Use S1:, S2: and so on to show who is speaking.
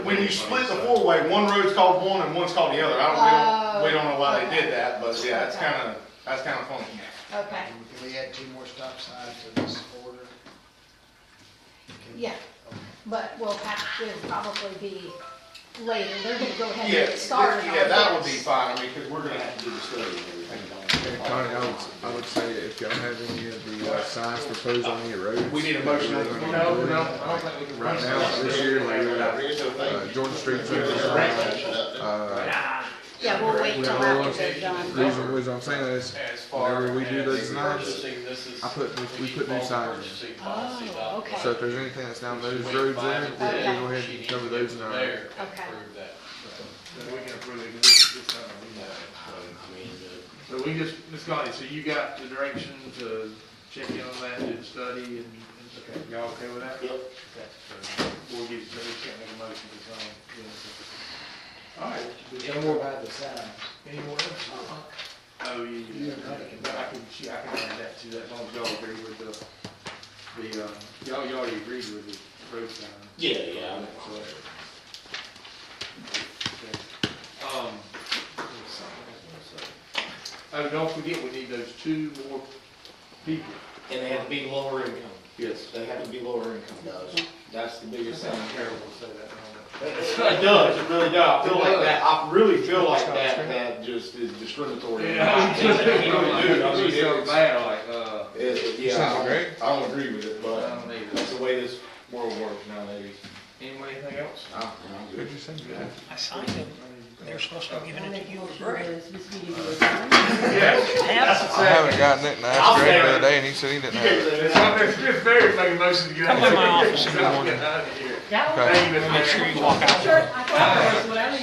S1: When you split the four-way, one road's called one and one's called the other. I
S2: Oh,
S1: don't, we don't, we don't know why they did that, but yeah, it's kinda, that's kinda funny.
S2: Okay,
S3: Can we add two more stop signs to this order? Can-
S2: yeah, but we'll have to probably be later, they're gonna go ahead
S1: Yeah,
S2: and get started on
S1: yeah, that would be
S2: this.
S1: fine, I mean, cause we're gonna have to
S4: do the study and everything.
S5: Connie, I would, I would say if y'all have any of the uh, signs proposed on any roads.
S1: We need a motion.
S5: that we're gonna do it. Right now, this year, like, we got, uh, Jordan Street, uh,
S2: Yeah, we'll wait till after they're done.
S5: reason, reason I'm saying is,
S6: As far
S5: whenever we do those
S6: as
S5: signs,
S6: purchasing, this is.
S5: I put new- we put new
S6: follow
S5: signs in.
S6: purchasing policy
S2: Oh,
S6: document.
S5: so
S2: okay,
S5: if there's anything that's down those roads there, we can go ahead and cover those in our.
S6: There, and
S2: Okay.
S6: prove that.
S7: We can approve it, 'cause it's- it's not on
S6: So,
S7: email.
S6: I mean,
S7: So we just, Ms. Connie, so you got the direction to check in on that, do the study, and, and, okay, y'all okay with that? Yep. We'll give, so we can't make a motion to sign. All right,
S3: We can more about the sign.
S7: any more? Oh, yeah, yeah, I can, she, I can add that to that, as long as y'all agree with the, the, uh, y'all, y'all already agreed with the road sign.
S4: Yeah, yeah. I'm-
S7: Um, Oh, don't forget, we need those two more people.
S4: And they have to be lower income.
S7: Yes.
S4: They have to be lower income. Does. That's the biggest thing.
S7: Terrible to say that. I
S4: It does, it really does. I feel like
S7: does.
S4: that, I really feel like that, that just is discriminatory.
S7: don't know.
S4: Dude, I mean,
S7: It's so
S4: it's-
S7: bad, like, uh,
S4: It- it- Yeah,
S5: Sounds
S4: I
S5: great.
S4: don't, I don't agree with it,
S7: I
S4: but
S7: don't need it.
S4: that's the way this world works nowadays.
S7: Anyone, anything else?
S4: I- I'm good.
S5: What'd you say?
S8: I signed it. They're supposed to have given it to you for free.
S7: Yes.
S5: I haven't gotten it, and I asked Greg the other day, and he said he didn't have it.
S7: It's not, it's very making motion to get out
S8: Come
S7: of
S8: by
S7: here.
S8: my office in the morning.
S7: Get out of here.
S5: Okay.
S7: Thank you,
S8: Make
S7: Mr. Mayor.
S8: sure you walk out.